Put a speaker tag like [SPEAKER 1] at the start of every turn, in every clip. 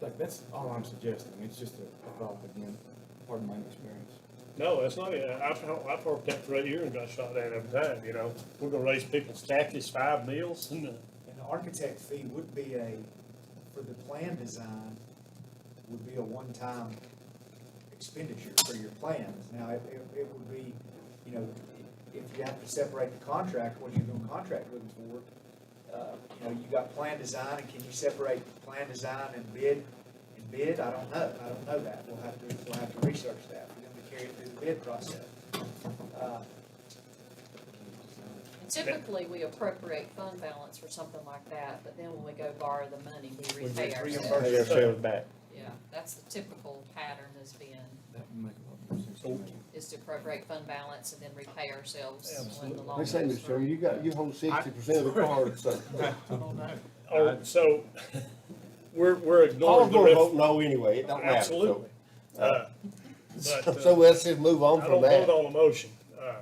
[SPEAKER 1] Like, that's all I'm suggesting, it's just a a thought again, pardon my inexperience.
[SPEAKER 2] No, that's not, it. I've, I've worked that for eight years and got shot at every time, you know? We're gonna raise people's taxes five meals and, uh,
[SPEAKER 3] And the architect fee would be a, for the plan design, would be a one-time expenditure for your plans. Now, it, it, it would be, you know, if you have to separate the contract, what you're gonna contract with them for. Uh, you know, you got plan design, and can you separate plan design and bid, and bid? I don't know, I don't know that. We'll have to, we'll have to research that. We're gonna carry it through the bid process. Uh,
[SPEAKER 4] And Typically, we appropriate fund balance for something like that, but then when we go borrow the money, we
[SPEAKER 2] We
[SPEAKER 4] repay
[SPEAKER 3] reimburse.
[SPEAKER 4] ourselves.
[SPEAKER 3] Pay
[SPEAKER 2] ourselves
[SPEAKER 5] back.
[SPEAKER 4] Yeah, that's the typical pattern has been,
[SPEAKER 1] That would make a lot more sense to
[SPEAKER 2] Oh.
[SPEAKER 1] me.
[SPEAKER 4] is to appropriate fund balance and then repay ourselves when the loan
[SPEAKER 6] They
[SPEAKER 4] goes
[SPEAKER 6] say, Mr. Chairman,
[SPEAKER 4] through.
[SPEAKER 6] you got, you hold sixty percent of the card, so.
[SPEAKER 2] oh, so we're, we're
[SPEAKER 6] Paul's
[SPEAKER 2] ignoring the
[SPEAKER 6] gonna
[SPEAKER 2] ref.
[SPEAKER 6] vote no anyway, it don't matter, so.
[SPEAKER 2] Absolutely. Uh, But, uh,
[SPEAKER 6] So let's just move on
[SPEAKER 2] I don't
[SPEAKER 6] from
[SPEAKER 2] vote
[SPEAKER 6] that.
[SPEAKER 2] on a motion. uh,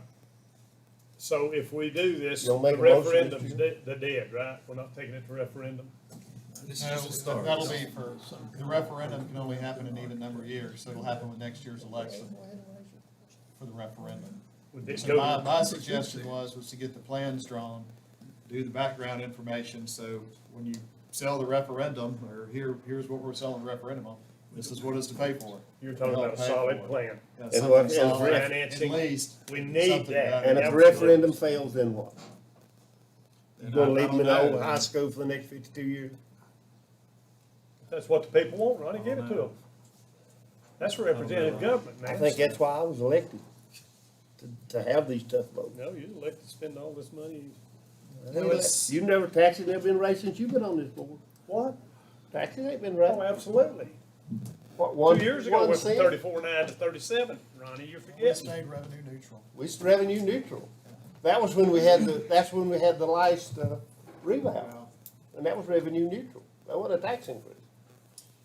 [SPEAKER 2] So if we do this,
[SPEAKER 6] You
[SPEAKER 2] the
[SPEAKER 6] gonna make a motion, Mr.
[SPEAKER 2] referendum's de- the dead, right? We're not taking it to referendum?
[SPEAKER 7] This is just a start. That'll be for, the referendum can only happen in even number of years, so it'll happen with next year's election for the referendum.
[SPEAKER 2] Would this
[SPEAKER 7] So my,
[SPEAKER 2] go,
[SPEAKER 7] my suggestion was, was to get the plans drawn, do the background information, so when you sell the referendum, or here, here's what we're selling the referendum on, this is what it's to pay for.
[SPEAKER 2] you're talking about a solid plan.
[SPEAKER 7] Uh,
[SPEAKER 6] It's
[SPEAKER 7] something
[SPEAKER 6] what- it's
[SPEAKER 7] solid, at
[SPEAKER 2] financing.
[SPEAKER 7] least
[SPEAKER 2] We need
[SPEAKER 7] Something
[SPEAKER 2] that.
[SPEAKER 7] about it.
[SPEAKER 6] And if the referendum fails, then what? You
[SPEAKER 7] And
[SPEAKER 6] gonna
[SPEAKER 7] I- I
[SPEAKER 6] leave them in
[SPEAKER 7] don't
[SPEAKER 6] the old
[SPEAKER 7] know.
[SPEAKER 6] high school for the next fifty-two years?
[SPEAKER 2] That's what the people want, Ronnie, give it to them. That's representative government, man.
[SPEAKER 6] I think that's why I was elected, to, to have these tough votes.
[SPEAKER 2] No, you elected to spend all this money.
[SPEAKER 6] You never, taxes never been raised since you've been on this board.
[SPEAKER 2] What?
[SPEAKER 6] Taxes ain't been
[SPEAKER 2] Oh,
[SPEAKER 6] raised.
[SPEAKER 2] absolutely.
[SPEAKER 6] What, one-
[SPEAKER 2] Two years ago, it
[SPEAKER 6] one
[SPEAKER 2] went from
[SPEAKER 6] cent?
[SPEAKER 2] thirty-four nine to thirty-seven, Ronnie, you're
[SPEAKER 7] We
[SPEAKER 2] forgetting.
[SPEAKER 7] stayed revenue neutral.
[SPEAKER 6] We was revenue neutral. That was when we had the, that's when we had the last, uh, rebound,
[SPEAKER 7] Well,
[SPEAKER 6] and that was revenue neutral. That wasn't a tax increase,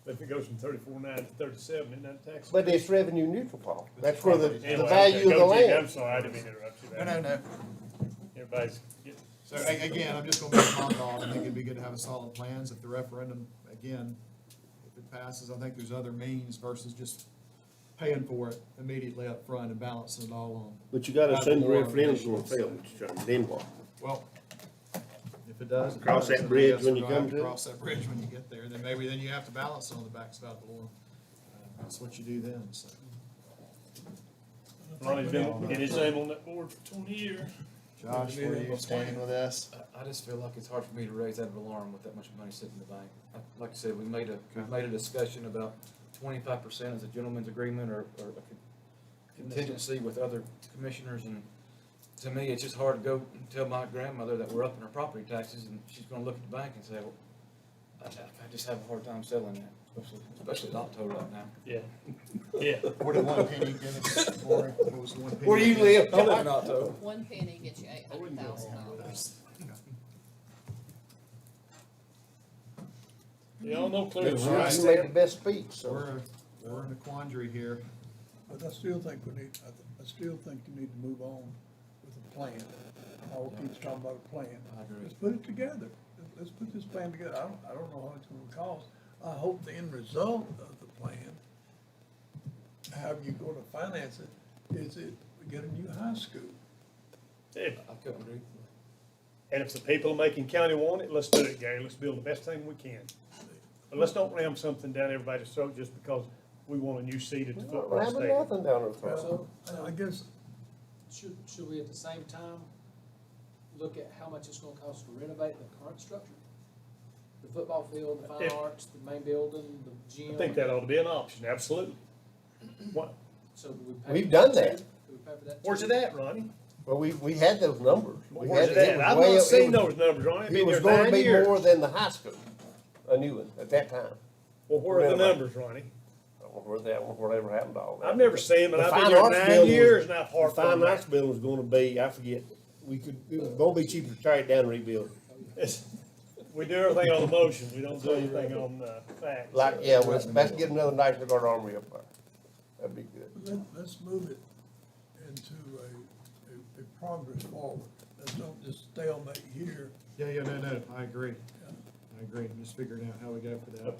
[SPEAKER 2] If it goes from thirty-four nine to thirty-seven, isn't that tax?
[SPEAKER 6] but it's revenue neutral, Paul. That's where the, the
[SPEAKER 2] Anyway,
[SPEAKER 6] value of the
[SPEAKER 2] go, Jig,
[SPEAKER 6] land.
[SPEAKER 2] I'm sorry, I didn't mean to interrupt you
[SPEAKER 7] No,
[SPEAKER 2] there.
[SPEAKER 7] no, no.
[SPEAKER 2] Everybody's getting
[SPEAKER 7] So a- again, I'm just gonna make a comment on, I think it'd be good to have a solid plans if the referendum, again, if it passes, I think there's other means versus just paying for it immediately up front and balancing it all on.
[SPEAKER 6] But you gotta
[SPEAKER 7] assume the referendum's gonna fail,
[SPEAKER 6] Mr. Chairman, then what?
[SPEAKER 7] Well, if it does. it
[SPEAKER 6] Cross
[SPEAKER 7] does,
[SPEAKER 6] that
[SPEAKER 7] and I
[SPEAKER 6] bridge
[SPEAKER 7] guess
[SPEAKER 6] when
[SPEAKER 7] we'll
[SPEAKER 6] you come
[SPEAKER 7] have
[SPEAKER 6] to it.
[SPEAKER 7] Cross that bridge when you get there, then maybe then you have to balance it on the backside of the lawn. Uh, That's what you do then, so.
[SPEAKER 2] Ronnie's been getting his name on that board for twenty years.
[SPEAKER 7] Josh, where do you stand with this?
[SPEAKER 8] I, I just feel like it's hard for me to raise that alarm with that much money sitting in the bank. I- Like I said, we made a, we made a discussion about twenty-five percent as a gentleman's agreement or, or a con- contingency with other commissioners and to me, it's just hard to go and tell my grandmother that we're upping her property taxes and she's gonna look at the bank and say, well, I, I just have a hard time selling that, especially, especially the auto right now.
[SPEAKER 2] Yeah, yeah.
[SPEAKER 7] Forty-one penny, give us, Lori, what was the one penny?
[SPEAKER 6] Where do you live?
[SPEAKER 8] I live in Alto.
[SPEAKER 4] One penny gets you eight hundred thousand dollars.
[SPEAKER 2] Y'all know clear.
[SPEAKER 6] You
[SPEAKER 2] as
[SPEAKER 7] Right.
[SPEAKER 2] day.
[SPEAKER 6] made the best speech, so.
[SPEAKER 7] We're, we're in a quandary here.
[SPEAKER 9] But I still think we need, I, th- I still think you need to move on with the plan. Paul keeps talking about a plan.
[SPEAKER 8] I agree.
[SPEAKER 9] Let's put it together. Let's- Let's put this plan together. I don't, I don't know how it's gonna cost. I hope the end result of the plan, how you gonna finance it, is it, we get a new high school.
[SPEAKER 2] If-
[SPEAKER 8] I couldn't agree.
[SPEAKER 2] And if the people of Macon County want it, let's do it, Gary. Let's build the best thing we can. But let's don't ram something down everybody's throat just because we want a new seat at the
[SPEAKER 6] We're not
[SPEAKER 2] football
[SPEAKER 6] ramming
[SPEAKER 2] stadium.
[SPEAKER 6] nothing down our throat.
[SPEAKER 9] Well, I guess,
[SPEAKER 10] Should, should we at the same time look at how much it's gonna cost to renovate the current structure? The football field, the
[SPEAKER 2] If-
[SPEAKER 10] fine arts, the main building, the gym?
[SPEAKER 2] I think that ought to be an option, absolutely. What,
[SPEAKER 10] So do we pay?
[SPEAKER 6] We've
[SPEAKER 10] for
[SPEAKER 6] done that.
[SPEAKER 10] too? Do we pay for that?
[SPEAKER 2] where's
[SPEAKER 10] too?
[SPEAKER 2] it at, Ronnie?
[SPEAKER 6] Well, we, we had those numbers. We
[SPEAKER 2] Where's
[SPEAKER 6] had-
[SPEAKER 2] it
[SPEAKER 6] it
[SPEAKER 2] at?
[SPEAKER 6] was
[SPEAKER 2] I've
[SPEAKER 6] way up-
[SPEAKER 2] not
[SPEAKER 6] it
[SPEAKER 2] seen
[SPEAKER 6] was-
[SPEAKER 2] those numbers, Ronnie. I've
[SPEAKER 6] It
[SPEAKER 2] been
[SPEAKER 6] was
[SPEAKER 2] here
[SPEAKER 6] gonna
[SPEAKER 2] nine
[SPEAKER 6] be
[SPEAKER 2] years.
[SPEAKER 6] more than the high school, a new one, at that time.
[SPEAKER 2] Well, where are the
[SPEAKER 6] Whatever.
[SPEAKER 2] numbers, Ronnie?
[SPEAKER 6] Or where that, whatever happened to all that.
[SPEAKER 2] I've never seen them, and
[SPEAKER 6] The
[SPEAKER 2] I've been
[SPEAKER 6] fine
[SPEAKER 2] here
[SPEAKER 6] arts bill
[SPEAKER 2] nine
[SPEAKER 6] was-
[SPEAKER 2] years, and I've
[SPEAKER 6] The
[SPEAKER 2] harped on
[SPEAKER 6] fine arts
[SPEAKER 2] that.
[SPEAKER 6] bill was gonna be, I forget, we could, it was gonna be cheaper to tear it down and rebuild.
[SPEAKER 2] It's- We do everything on the motion, we don't do anything on, uh, facts.
[SPEAKER 6] Like, yeah, well, let's, let's get another nice little armory up there. That'd be good.
[SPEAKER 9] let, let's move it into a, a, a progress forward. Let's don't just stalemate here
[SPEAKER 7] Yeah, yeah, no, no, I agree. I agree, I'm just figuring out how we go for that.